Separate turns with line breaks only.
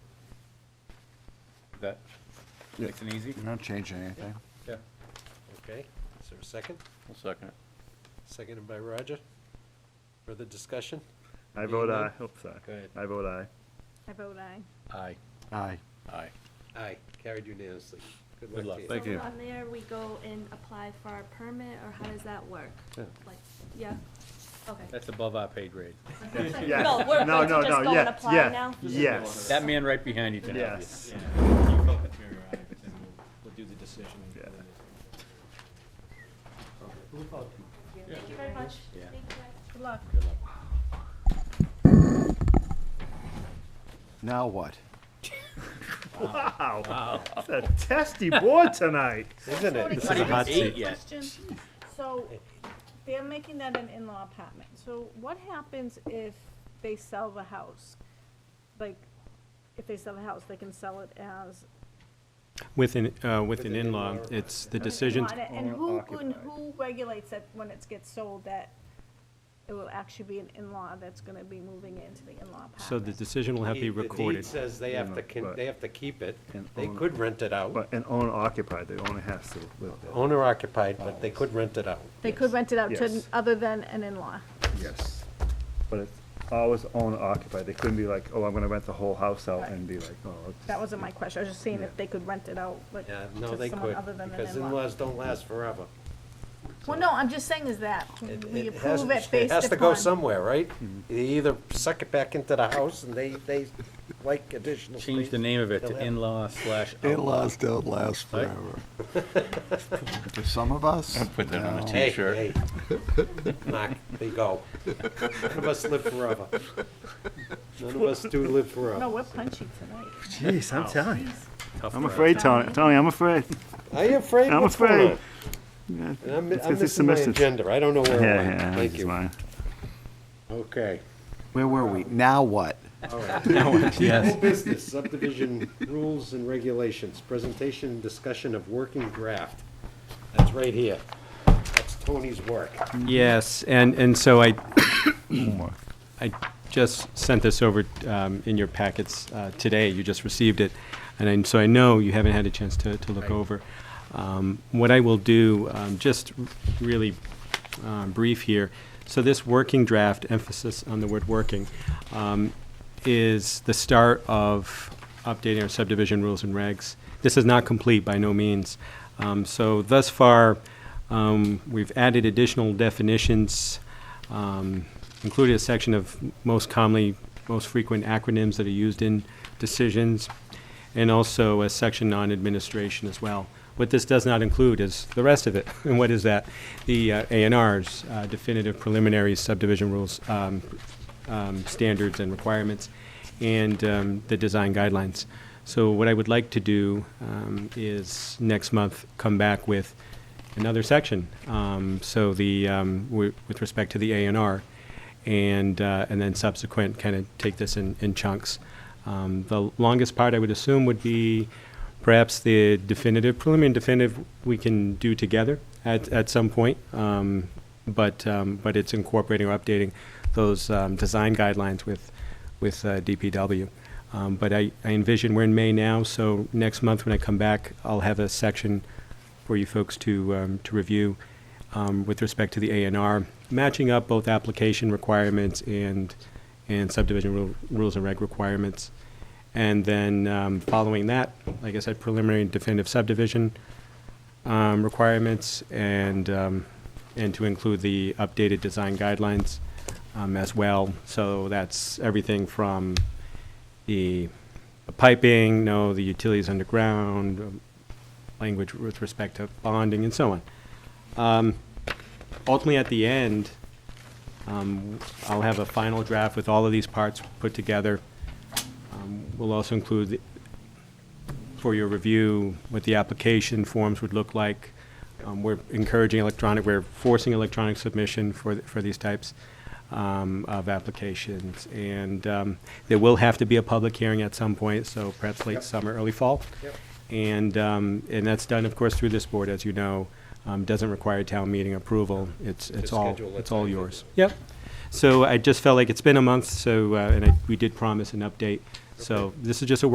That
Yeah.
makes it easy?
Mm-hmm.
You're not changing anything.
Yeah.
Okay, is there a second?
I'll second it.
Seconded by Roger. Further discussion?
I vote
Anyone?
aye. Oops, sorry.
Go ahead.
I vote aye.
I vote aye.
Aye.
Aye.
Aye.
Aye, carried unanimously. Good
Good
luck
luck.
to you.
Thank you.
So from there, we go and apply for our permit, or how does that work?
Yeah.
Like, yeah, okay.
That's above our pay grade.
Yeah.
No, we're
No,
going to
no, no,
just go and
yeah,
apply
yeah,
now?
yes,
That man right behind you can have it.
yes.
Yeah, if you felt inferior, I, then we'll, we'll do the decision. and
Yeah.
then we'll-
Thank you very much.
Yeah.
Thank you guys.
Good luck.
Now what?
Wow, it's a testy board tonight.
Isn't it?
This is a hot seat yet.
Question, so they're making that an in-law apartment, so what happens if they sell the house? Like, if they sell the house, they can sell it as.
With an, uh, with an
an
in-law,
in-law.
it's the
an
decision,
in-law, And who, and
Owner-occupied.
who regulates that when it gets sold, that it will actually be an in-law that's gonna be moving into the in-law apartment?
so the decision will have to be
The deed
recorded.
says they
You
have
know,
to, con-
but-
they have to keep it.
And
They
own-
could rent it out.
But an owner occupied, the owner has to live there.
Owner occupied, but they could rent it out.
They could rent it out to, n-
Yes.
other than an in-law.
Yes. But it's always owner occupied. They couldn't be like, oh, I'm gonna rent the whole house out and be like, oh. it's-
That wasn't my question, I was just seeing if they could rent it out, like,
Yeah,
to
no, they
someone
could,
other than an in-law.
because in-laws don't last forever.
Well, no, I'm just saying is that,
It-
we
it has-
approve it based upon.
It has to go somewhere, right? They either suck it back into the house and they, they like additional space.
Change the name of it to in-law slash outlaw.
In-laws don't last
Right.
forever.
For some of us?
Put that on a
Hey,
t-shirt.
hey. Knock, they go. None of us live forever. None of us do live
No,
forever.
we're punchy tonight.
Jeez, I'm telling you.
Tough
I'm
crowd.
afraid, Tony. Tony, I'm afraid.
Are you afraid?
I'm
What's going
afraid.
on?
Yeah,
And I'm,
let's
I'm
get this
missing my
semester-
agenda. I don't know where
Yeah,
I'm at.
yeah,
Thank
this is
you.
mine.
Okay.
Where were we? Now what?
Whole business subdivision rules and regulations, presentation and discussion of working draft. That's right here. That's Tony's work.
Yes, and, and so I, I just sent this over um, in your packets uh, today, you just received it, and I- so I know you haven't had a chance to, to look
Right.
over. Um, What I will do, um, just really um, brief here, so this working draft, emphasis on the word working, um, is the start of updating our subdivision rules and regs. This is not complete by no means. Um, So thus far, um, we've added additional definitions, um, included a section of most commonly, most frequent acronyms that are used in decisions, and also a section on administration as well. What this does not include is the rest of it. And what is that? The uh, A and Rs, uh, definitive preliminary subdivision rules, um, um, standards and requirements, and um, the design guidelines. So what I would like to do um, is next month come back with another section. Um, so the um, wi- with respect to the A and R, and uh, and then subsequent kind of take this in, in chunks. Um, the longest part I would assume would be perhaps the definitive preliminary and definitive we can do together at, at some point. Um, but um, but it's incorporating or updating those um, design guidelines with with uh, DPW. Um, but I, I envision we're in May now, so next month when I come back, I'll have a section for you folks to, um, to review um, with respect to the A and R, matching up both application requirements and, and subdivision rule- rules and reg requirements. And then um, following that, like I said, preliminary and definitive subdivision um, requirements and, um, and to include the updated design guidelines um, as well. So that's everything from the the piping, no, the utilities underground, um, language with respect to bonding and so on. Um, Ultimately, at the end, um, I'll have a final draft with all of these parts put together. Um, We'll also include the- for your review what the application forms would look like. Um, We're encouraging electronic, we're forcing electronic submission for, th- for these types um, of applications. And um, there will have to be a public hearing at some point, so perhaps late summer, early fall.
Yep.
And, um, and that's done, of course, through this board, as you know. Um, Doesn't require town meeting approval. It's, it's
Just
all,
schedule it
it's all
time.
yours. Yep. So I just felt like it's been a month, so, uh, and I- we did promise an update. So this is just a